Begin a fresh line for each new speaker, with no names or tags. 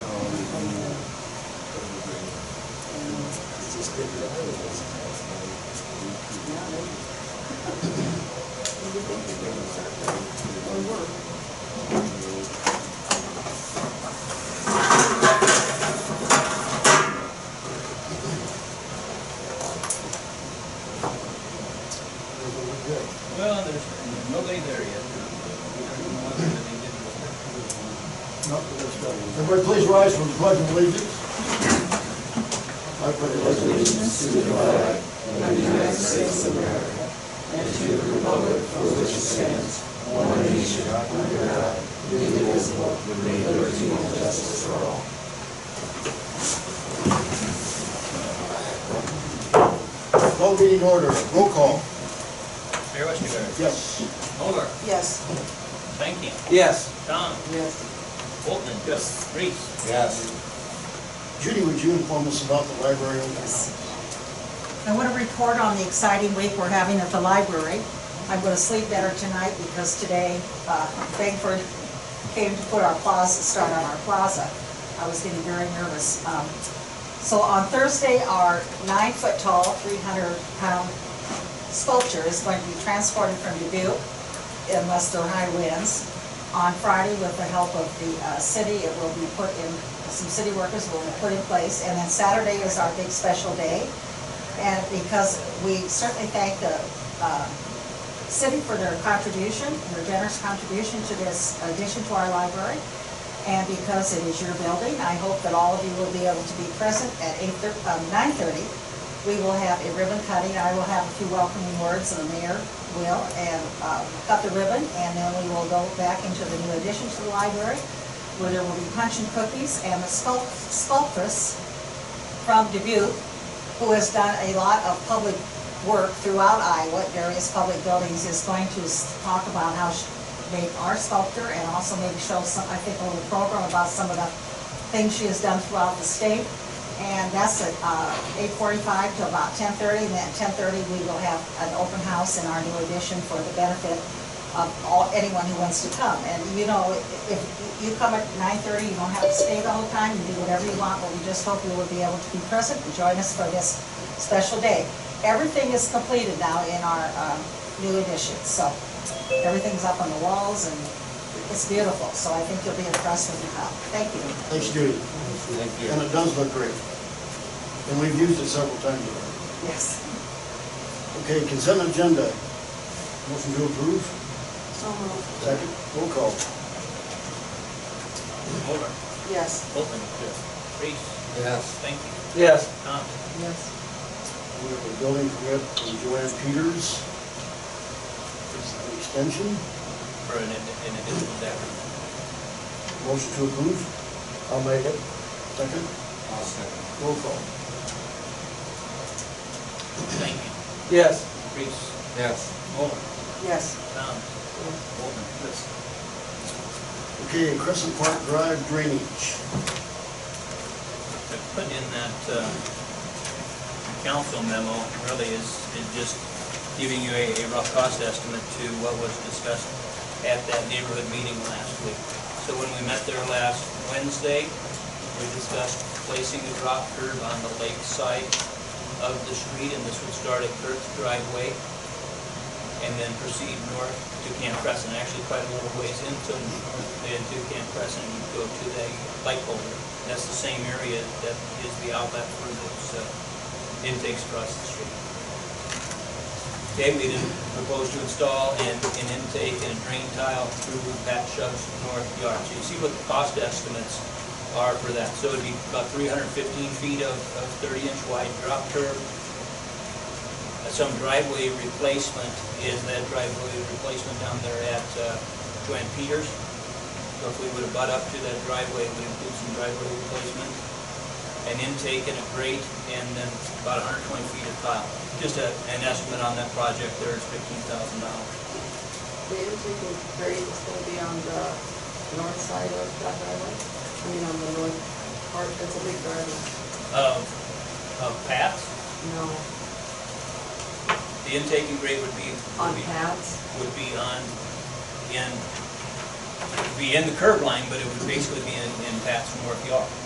rise for the pledge of allegiance. I pledge allegiance to the flag of the United States of America and to the republic for which it stands, one nation, under God, indivisible, with liberty and justice for all. Call meeting order, roll call,
Mayor Westergaard.
yes.
Mulder.
Yes.
Stankin.
Yes.
Tom.
Yes.
Bolton. Yes. Reese.
Yes.
Judy, would you inform us about the library opening?
I want to report on the exciting week we're having at the library. I'm going to sleep better tonight because today uh, Bangford came to put our plaza, start on our plaza. I was getting very nervous. Um, So on Thursday, our nine-foot-tall, 300-pound sculpture is going to be transported from Dubuque unless there are high winds. On Friday, with the help of the uh, city, it will be put in, some city workers will be put in place. And then Saturday is our big special day. And because we certainly thank the uh, city for their contribution, their generous contribution to this addition to our library. And because it is your building, I hope that all of you will be able to be present at 8:30 um, 9:30. We will have a ribbon cutting, I will have a few welcoming words, and the mayor will, and uh, cut the ribbon, and then we will go back into the new addition to the library, where there will be punch and cookies, and the sculpt- sculptress from Dubuque, who has done a lot of public work throughout Iowa, at various public buildings, is going to s- talk about how she made our sculptor and also maybe show some, I think, a little program about some of the things she has done throughout the state. And that's at uh, eight forty-five to about ten thirty, and then at ten thirty, we will have an open house in our new addition for the benefit of all, anyone who wants to come. And you know, if you come at nine thirty, you don't have to stay the whole time, you do whatever you want, but we just hope you will be able to be present and join us for this special day. Everything is completed now in our um, new addition, so everything's up on the walls and it's beautiful, so I think you'll be impressed when you come. Thank you.
Thanks, Judy.
Thank
And it does look great. And we've used it several times already.
Yes.
Okay, consent agenda. Motion to approve?
So moved.
Second. Roll call.
Mulder.
Yes.
Bolton. Yes. Reese.
Yes.
Stankin.
Yes.
Tom.
Yes.
We have a building permit from Joanne Peters. It's an extension.
For an ad- an additional day.
Motion to approve? I'll make it. Second.
I'll second.
Roll call.
Stankin.
Yes.
Reese.
Yes.
Mulder.
Yes.
Tom. Bolton. Yes.
Okay, Crescent Park Drive drainage.
I put in that uh, council memo, really is, is just giving you a a rough cost estimate to what was discussed at that neighborhood meeting last week. So when we met there last Wednesday, we discussed placing the drop curb on the lake side of the street, and this would start at Kurt's driveway and then proceed north to Camp Crescent, actually quite a little ways into, into Camp Crescent, you go to the light pole. That's the same area that is the outlet for those uh, intakes across the street. Okay, we then propose to install an, an intake and a drain tile through Pat Shuck's north yard. So you see what the cost estimates are for that. So it'd be about three hundred fifteen feet of, of thirty-inch wide drop curb, uh, some driveway replacement, is that driveway replacement down there at uh, Joanne Peters. So if we would have butt up to that driveway, it would include some driveway replacement, an intake and a grate, and then about 120 feet of tile. Just a- an estimate on that project there is $15,000.
The intake and grade is gonna be on the north side of that driveway, I mean, on the north part, it's a big driveway.
Of, of paths,
No,
the intake and grate would be,
on
would be-
paths,
would be on, in, be in the curb line, but it would basically be in, in Pat's north yard.